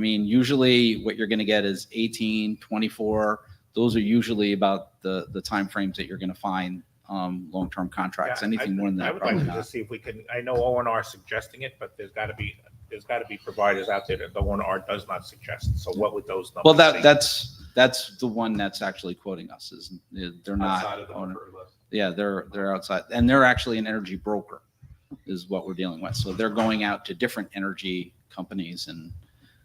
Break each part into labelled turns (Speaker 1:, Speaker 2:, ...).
Speaker 1: I mean, usually what you're going to get is 18, 24. Those are usually about the, the timeframes that you're going to find um, long-term contracts.
Speaker 2: Yeah, I-
Speaker 1: Anything more than
Speaker 2: I
Speaker 1: that,
Speaker 2: would like
Speaker 1: probably
Speaker 2: to
Speaker 1: not.
Speaker 2: just see if we can, I know O and R suggesting it, but there's got to be, there's got to be providers out there that the O and R does not suggest. So what would those numbers be?
Speaker 1: Well, that, that's, that's the one that's actually quoting us is they're
Speaker 2: Outside
Speaker 1: not.
Speaker 2: of the
Speaker 1: owner-
Speaker 2: preferred list.
Speaker 1: Yeah, they're, they're outside and they're actually an energy broker is what we're dealing with. So they're going out to different energy companies and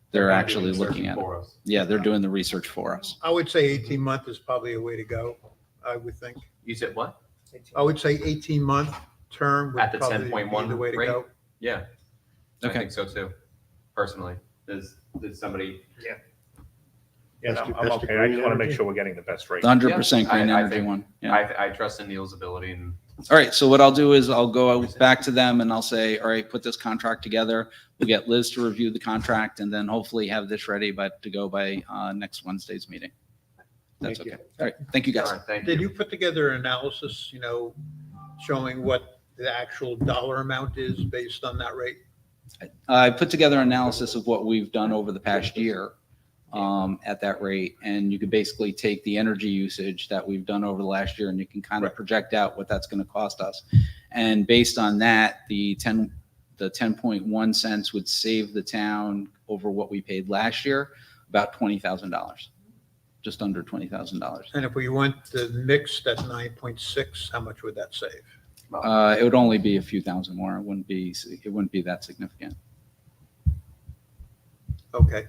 Speaker 1: they're
Speaker 2: not
Speaker 1: actually
Speaker 2: doing the
Speaker 1: looking
Speaker 2: search
Speaker 1: at it.
Speaker 2: for us.
Speaker 1: Yeah, they're doing the research for us.
Speaker 3: I would say 18 month is probably a way to go, I would think.
Speaker 4: You said what?
Speaker 3: I would say 18 month term would
Speaker 4: At the
Speaker 3: probably be
Speaker 4: 10.1
Speaker 3: the way to go.
Speaker 4: Yeah. I
Speaker 1: Okay.
Speaker 4: think so too, personally. Does, does somebody?
Speaker 2: Yeah, no,
Speaker 3: Let's do
Speaker 2: I'm
Speaker 3: best
Speaker 2: okay. I just
Speaker 3: degree
Speaker 2: want to make
Speaker 3: energy.
Speaker 2: sure we're getting the best rate.
Speaker 1: The hundred percent
Speaker 4: Yeah, I-
Speaker 1: green
Speaker 4: I
Speaker 1: energy
Speaker 4: think-
Speaker 1: one. Yeah.
Speaker 4: I, I trust in Neil's ability and
Speaker 1: All right, so what I'll do is I'll go back to them and I'll say, all right, put this contract together. We'll get Liz to review the contract and then hopefully have this ready, but to go by uh, next Wednesday's meeting. That's
Speaker 3: Thank you.
Speaker 1: okay. All right, thank you guys.
Speaker 4: All right, Thank
Speaker 3: Did
Speaker 4: you.
Speaker 3: you put together an analysis, you know, showing what the actual dollar amount is based on that rate?
Speaker 1: I put together an analysis of what we've done over the past year um, at that rate, and you could basically take the energy usage that we've done over the last year, and you can kind of project out what that's going to cost us. And based on that, the 10, the 10.1 cents would save the town over what we paid last year, about $20,000, just under $20,000.
Speaker 3: And if we went the mix, that's 9.6, how much would that save?
Speaker 1: Uh, It would only be a few thousand more. It wouldn't be, it wouldn't be that significant.
Speaker 3: Okay,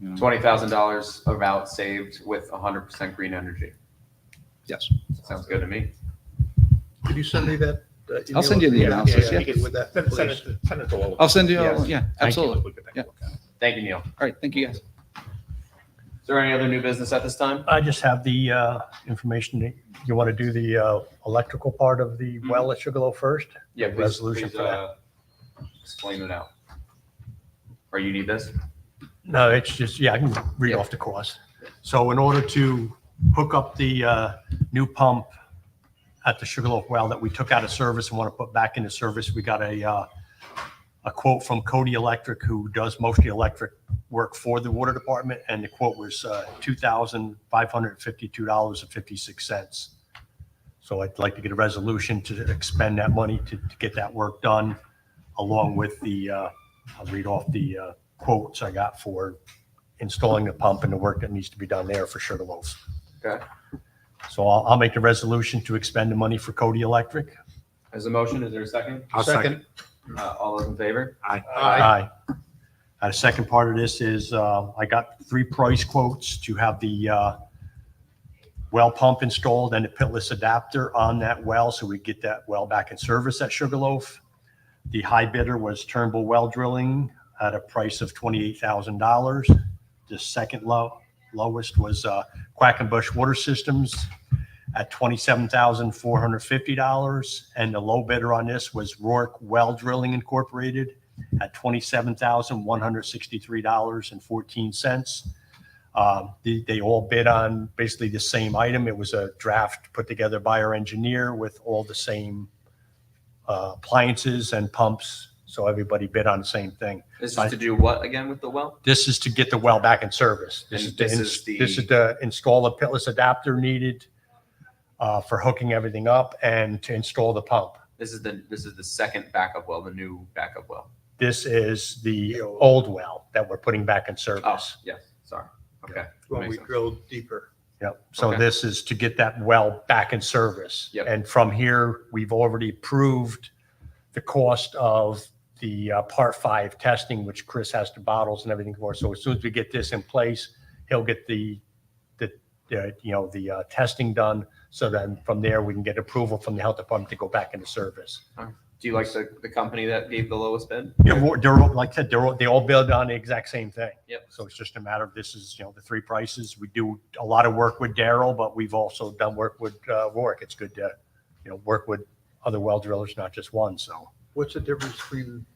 Speaker 1: you know.
Speaker 4: Twenty thousand dollars of out saved with hundred percent green energy.
Speaker 1: Yes.
Speaker 4: Sounds good to me.
Speaker 3: could you send me that? uh,
Speaker 1: I'll send you the
Speaker 3: email?
Speaker 1: analysis,
Speaker 3: Yeah,
Speaker 1: yeah.
Speaker 3: if you could With that,
Speaker 2: Send send it,
Speaker 3: please.
Speaker 2: to- send it to all of
Speaker 1: I'll
Speaker 2: us.
Speaker 1: send you, all-
Speaker 4: Yes.
Speaker 1: yeah,
Speaker 4: Thank you.
Speaker 1: absolutely.
Speaker 2: We could take a
Speaker 1: Yeah.
Speaker 2: look at it.
Speaker 4: Thank you, Neil.
Speaker 1: All right, thank you guys.
Speaker 4: Is there any other new business at this time?
Speaker 5: I just have the uh, information. that You want to do the uh, electrical part of the well at Sugarloaf first?
Speaker 4: Yeah, please,
Speaker 5: Resolution
Speaker 4: please,
Speaker 5: for that.
Speaker 4: uh, explain it out. Or you need this?
Speaker 5: No, it's just, yeah, I can read off the course. So in order to hook up the uh, new pump at the Sugarloaf well that we took out of service and want to put back into service, we got a, uh, a quote from Cody Electric, who does most of the electric work for the water department, and the quote was uh, $2,552.56. So I'd like to get a resolution to expend that money to to get that work done, along with the, uh, I'll read off the uh, quotes I got for installing the pump and the work that needs to be done there for Sugarloaf.
Speaker 4: Okay.
Speaker 5: So I'll, I'll make the resolution to expend the money for Cody Electric.
Speaker 4: As a motion, is there a second?
Speaker 3: Second,
Speaker 4: Uh, all those in favor?
Speaker 3: Aye.
Speaker 5: Uh, The second part of this is uh, I got three price quotes to have the uh, well pump installed and the pitless adapter on that well, so we get that well back in service at Sugarloaf. The high bidder was Turnbull Well Drilling at a price of $28,000. The second low, lowest was uh, Quackenbush Water Systems at $27,450. And the low bidder on this was Rourke Well Drilling Incorporated at $27,163.14. Um, They they all bid on basically the same item. It was a draft put together by our engineer with all the same uh, appliances and pumps, so everybody bid on the same thing.
Speaker 4: This
Speaker 5: Aye.
Speaker 4: is to do what again with the well?
Speaker 5: This is to get the well back in service. This
Speaker 4: And
Speaker 5: is to
Speaker 4: this
Speaker 5: ins-
Speaker 4: is the-
Speaker 5: This is to install a pitless adapter needed uh, for hooking everything up and to install the pump.
Speaker 4: This is the, this is the second backup well, the new backup well.
Speaker 5: This is the old well that we're putting back in
Speaker 4: Oh,
Speaker 5: service.
Speaker 4: yes, sorry. Okay.
Speaker 3: when
Speaker 4: Makes
Speaker 3: we
Speaker 4: sense.
Speaker 3: drill deeper.
Speaker 5: Yep. So
Speaker 4: Okay.
Speaker 5: this is to get that well back in service.
Speaker 4: Yep.
Speaker 5: And from here, we've already proved the cost of the uh, part five testing, which Chris has the bottles and everything for. So as soon as we get this in place, he'll get the, the, the, you know, the uh, testing done. So then from there, we can get approval from the health department to go back into service.
Speaker 4: Do you like the, the company that gave the lowest bid?
Speaker 5: They're, all- they're, all- like I said, they're, all- they all build on the exact same thing.
Speaker 4: Yep.
Speaker 5: So it's just a matter of, this is, you know, the three prices. We do a lot of work with Daryl, but we've also done work with uh, Rourke. It's good to, you know, work with other well drillers, not just one, so.
Speaker 3: What's the difference between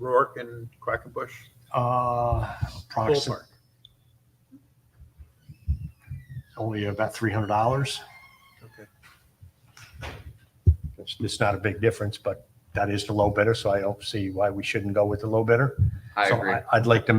Speaker 3: Rourke and Quackenbush?
Speaker 5: Uh,
Speaker 3: Ballpark.
Speaker 5: Only about three hundred dollars.
Speaker 3: Okay.
Speaker 5: It's, it's not a big difference, but that is the low bidder, so I don't see why we shouldn't go with the low bidder.
Speaker 4: I
Speaker 5: So
Speaker 4: agree.
Speaker 5: I'd like to make